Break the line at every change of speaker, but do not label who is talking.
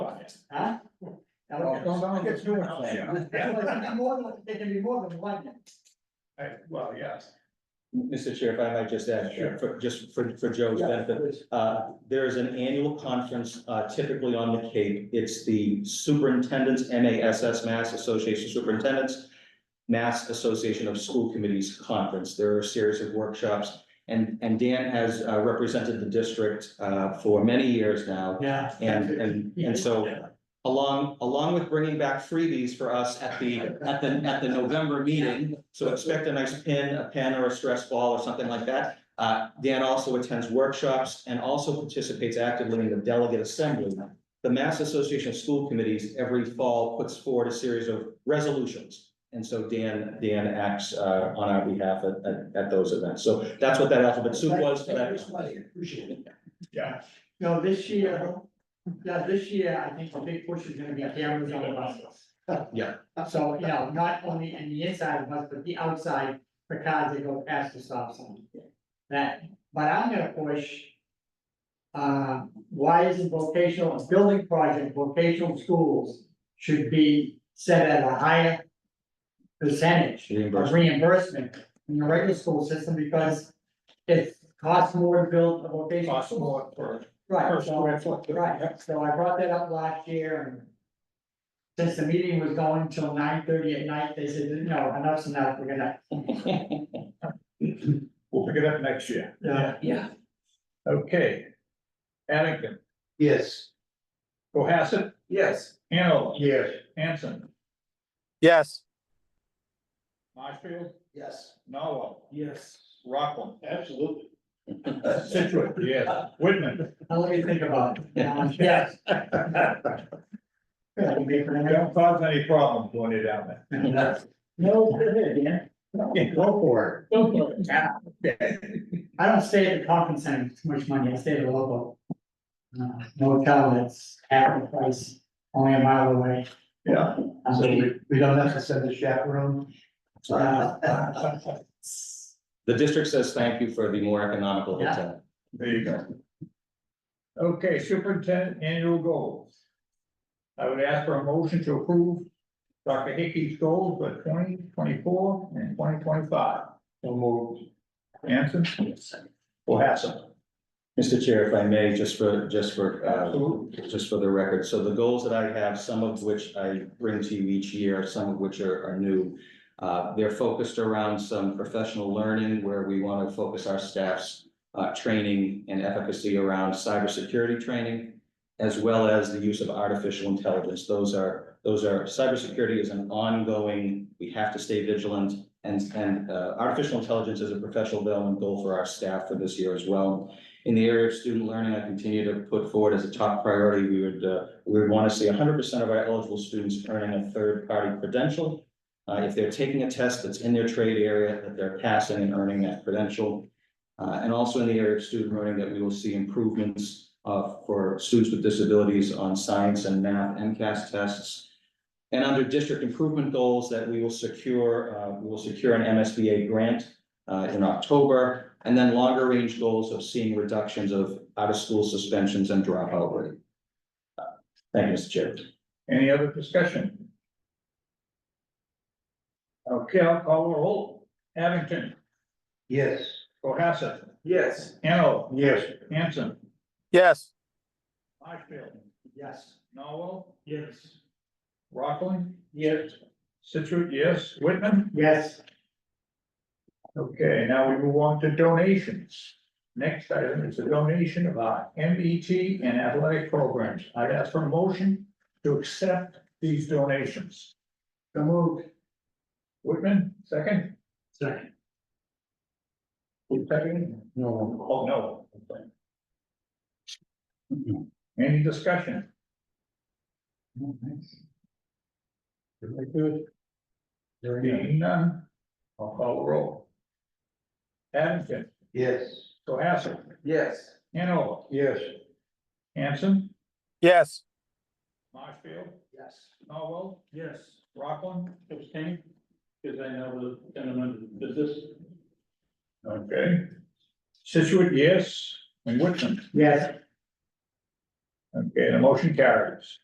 Don't, don't, don't get too much there.
Yeah.
Well, it can be more than, it can be more than one.
I- well, yes,
Mr. Chair, if I might just add,
Sure.
for, just for, for Joe's benefit, uh, there is an annual conference uh, typically on the Cape. It's the Superintendent's, MASS, Mass Association of Superintendents, Mass Association of School Committees Conference. There are a series of workshops. And, and Dan has uh, represented the district uh, for many years now.
Yeah.
And, and, and so along, along with bringing back freebies for us at the, at the, at the November meeting. So expect a nice pin, a pen or a stress ball or something like that. Uh, Dan also attends workshops and also participates actively in the delegate assembly. The Mass Association of School Committees every fall puts forward a series of resolutions. And so Dan, Dan acts, uh, on our behalf at, at, at those events. So that's what that alphabet soup was for that.
Appreciate it.
yeah.
No, this year, yeah, this year, I think the big push is gonna be cameras on the buses.
Yeah.
So, you know, not only in the inside of the bus, but the outside for cars that go past the stop sign. That, but I'm gonna push. Uh, why isn't vocational, a building project, vocational schools should be set at a higher. Percentage of
Reimbursement.
reimbursement in the regular school system because it costs more to build a vocational
Cost
school.
more for per
Right, so,
square foot.
right, so I brought that up last year and. Since the meeting was going till nine thirty at night, they said, no, enough's enough, we're gonna,
We'll pick it up next year.
Yeah.
Yeah.
Okay. Addington,
Yes.
Cohasset,
Yes.
Hanover,
Yes.
Hanson,
Yes,
Marshfield,
Yes.
Norwell,
Yes.
Rockland,
Absolutely.
Situate, yes, Whitman.
now let me think about it. Um, Yes. Yeah, you make for the next-
Don't cause any problems when you're down there.
No, go ahead, Dan.
Yeah, go for
Yeah. I don't stay at the conference center, it's too much money, I stay at a local. Uh, motel that's half the price, only a mile away.
Yeah.
Um,
So we, we don't have to send the chaperone?
uh,
The district says thank you for the more economical
Yeah.
hotel.
There you go. Okay, superintendent annual goals. I would ask for a motion to approve Dr. Hickey's goals for twenty twenty-four and twenty twenty-five. So moved. Hanson? Cohasset.
Mr. Chair, if I may, just for, just for, uh,
Absolutely.
just for the record, so the goals that I have, some of which I bring to you each year, some of which are, are new. Uh, they're focused around some professional learning where we want to focus our staff's, uh, training and efficacy around cybersecurity training. As well as the use of artificial intelligence. Those are, those are, cybersecurity is an ongoing, we have to stay vigilant. And, and, uh, artificial intelligence is a professional development goal for our staff for this year as well. In the area of student learning, I continue to put forward as a top priority, we would, uh, we would want to see hundred percent of our eligible students earning a third-party credential. Uh, if they're taking a test that's in their trade area, that they're passing and earning that credential. Uh, and also in the area of student learning, that we will see improvements, uh, for students with disabilities on science and math MCAS tests. And under district improvement goals, that we will secure, uh, we will secure an MSBA grant uh, in October. And then longer range goals of seeing reductions of out of school suspensions and dropout rate. Uh, Thank you, Mr. Chair.
Any other discussion? Okay, I'll call a roll. Abington,
Yes.
Cohasset,
Yes.
Hanover,
Yes.
Hanson,
yes,
Marshfield,
Yes.
Norwell,
Yes.
Rockland,
Yes.
Situate, yes, Whitman.
Yes.
Okay, now we move on to donations. Next item is a donation of our MBT and athletic programs. I'd ask for a motion to accept these donations.
So moved.
Whitman, second?
Second.
Who's Second?
No.
Oh, no. Any discussion?
Very good. Very good.
Being none, I'll call the roll. Abington,
Yes.
Cohasset,
Yes.
Hanover,
Yes.
Hanson,
yes,
Marshfield,
Yes.
Norwell,
Yes,
Rockland.
abstain, because I know the gentleman, does this,
Okay. Situate, yes, and Whitman.
Yes.
Okay, the motion carries.